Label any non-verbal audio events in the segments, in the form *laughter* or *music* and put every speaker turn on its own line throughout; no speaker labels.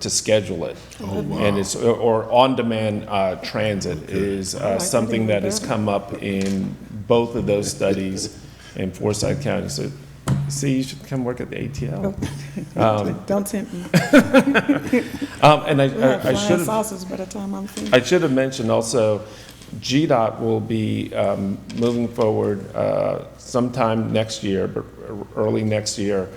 to schedule it. And it's, or on-demand uh, transit is uh, something that has come up in both of those studies in Forsyth County. So, see, you should come work at the
Oh.
ATL.
*laughs*
Don't tempt me.
Um, And I-
We have
I, I should
flying
have
saucers by the time I'm finished.
I should have mentioned also, GDOT will be um, moving forward uh, sometime next year, but early next year,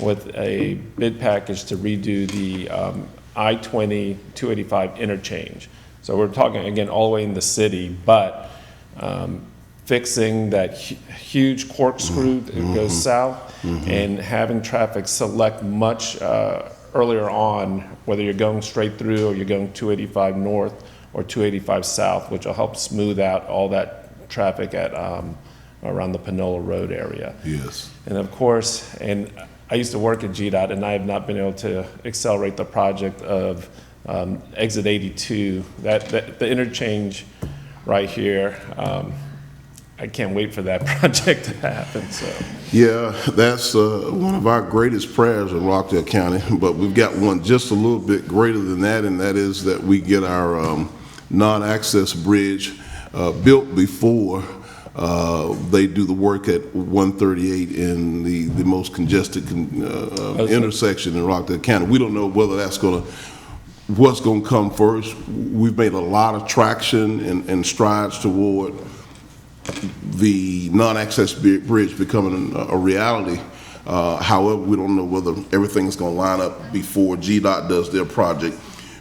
with a bid package to redo the um, I-20 285 interchange. So we're talking, again, all the way in the city, but um, fixing that hu- huge corkscrew that goes south and having traffic select much uh, earlier on, whether you're going straight through or you're going 285 north or 285 south, which will help smooth out all that traffic at, um, around the Panola Road area.
Yes.
And of course, and I used to work at GDOT, and I have not been able to accelerate the project of um, exit 82, that, that- the interchange right here. um, I can't wait for that *laughs* project to happen, so.
Yeah, that's uh, one of our greatest prayers in Rockdale County, *laughs* but we've got one just a little bit greater than that, and that is that we get our um, non-access bridge uh, built before uh, they do the work at 138 in the, the most congested con- uh, uh, intersection in Rockdale County. We don't know whether that's going to what's going to come first. We've made a lot of traction and and strides toward the non-access bi- bridge becoming a a reality. Uh, However, we don't know whether everything's going to line up before GDOT does their project.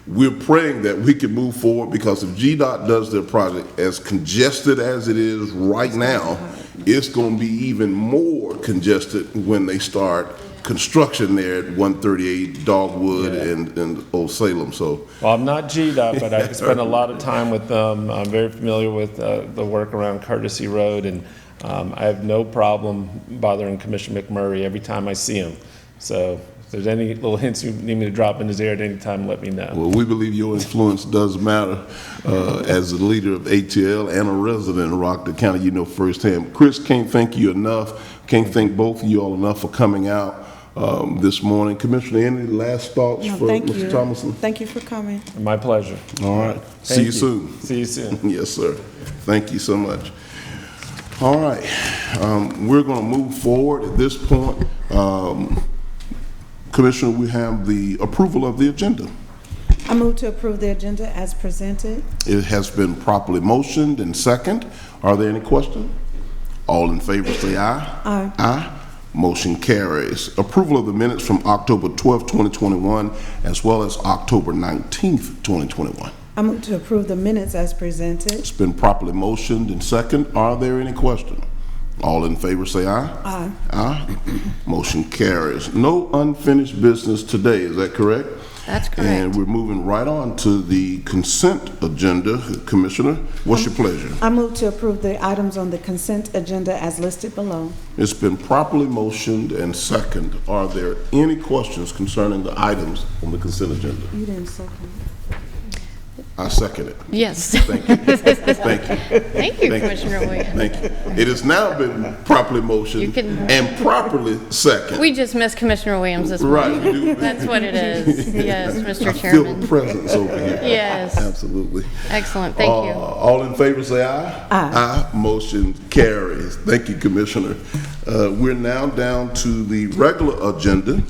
We're praying that we can move forward because if GDOT does their project, as congested as it is right now, it's going to be even more congested when they start construction there at 138 Dogwood
Yeah.
and, and Old Salem. So
Well, I'm not GDOT, but I spent a lot of time with them. I'm very familiar with uh, the work around Courtesy Road, and um, I have no problem bothering Commissioner McMurray every time I see him. So if there's any little hints you need me to drop in his ear at any time, let me know.
Well, we believe your influence does matter uh, as the leader of ATL and a resident of Rockdale County, you know firsthand. Chris, can't thank you enough, can't thank both of you all enough for coming out um, this morning. Commissioner, any last thoughts
No,
for
thank
Mr.
you.
Thomason?
Thank you for coming.
My pleasure.
All right, see
Thank
you soon.
See you soon.
Yes, sir. Thank you so much. All right, um, we're going to move forward at this point. um, Commissioner, we have the approval of the agenda.
I move to approve the agenda as presented.
It has been properly motioned and second. Are there any questions? All in favor, say aye. Aye. Aye. Motion carries. Approval of the minutes from October 12, 2021, as well as October 19, 2021.
I move to approve the minutes as presented.
It's been properly motioned and second. Are there any questions? All in favor, say aye. Aye. Aye. Motion carries. No unfinished business today, is that correct?
That's
And
correct.
we're moving right on to the consent agenda. Commissioner, what's
Mm-hmm.
your pleasure?
I move to approve the items on the consent agenda as listed below.
It's been properly motioned and second. Are there any questions concerning the items on the consent agenda?
You didn't second.
I second it.
Yes.
*laughs* Thank you. Thank
*laughs*
you.
Thank you,
Thank you.
Commissioner Williams.
Thank you. It has now been properly
You
motioned
can-
and properly seconded.
We just missed Commissioner Williams this morning.
Right. we do.
That's what it
*laughs*
is. Yes,
I
Mr.
feel the
Chairman.
presence over here.
Yes.
Absolutely.
Excellent, thank
Uh,
you.
All in favor, say aye. Aye. Motion carries. Thank you, Commissioner. Uh, We're now down to the regular agenda.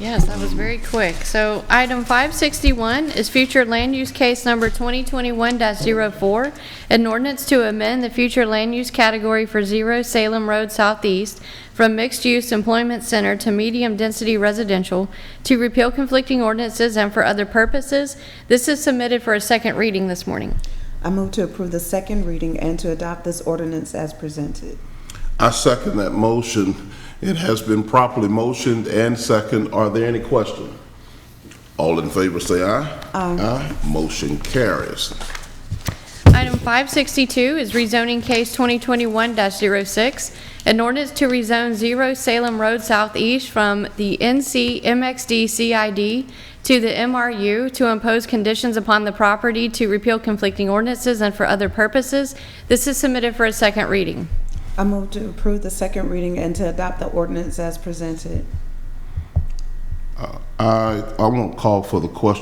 Yes, that was very quick. So item 561 is future land use case number 2021-04, an ordinance to amend the future land use category for Zero Salem Road Southeast from mixed-use employment center to medium-density residential to repeal conflicting ordinances and for other purposes. This is submitted for a second reading this morning.
I move to approve the second reading and to adopt this ordinance as presented.
I second that motion. It has been properly motioned and second. Are there any questions? All in favor, say aye. Aye. Motion carries.
Item 562 is rezoning case 2021-06, an ordinance to rezone 0 Salem Road Southeast from the NC MXD CID to the MRU to impose conditions upon the property to repeal conflicting ordinances and for other purposes. This is submitted for a second reading.
I move to approve the second reading and to adopt the ordinance as presented.
I, I won't call for the question.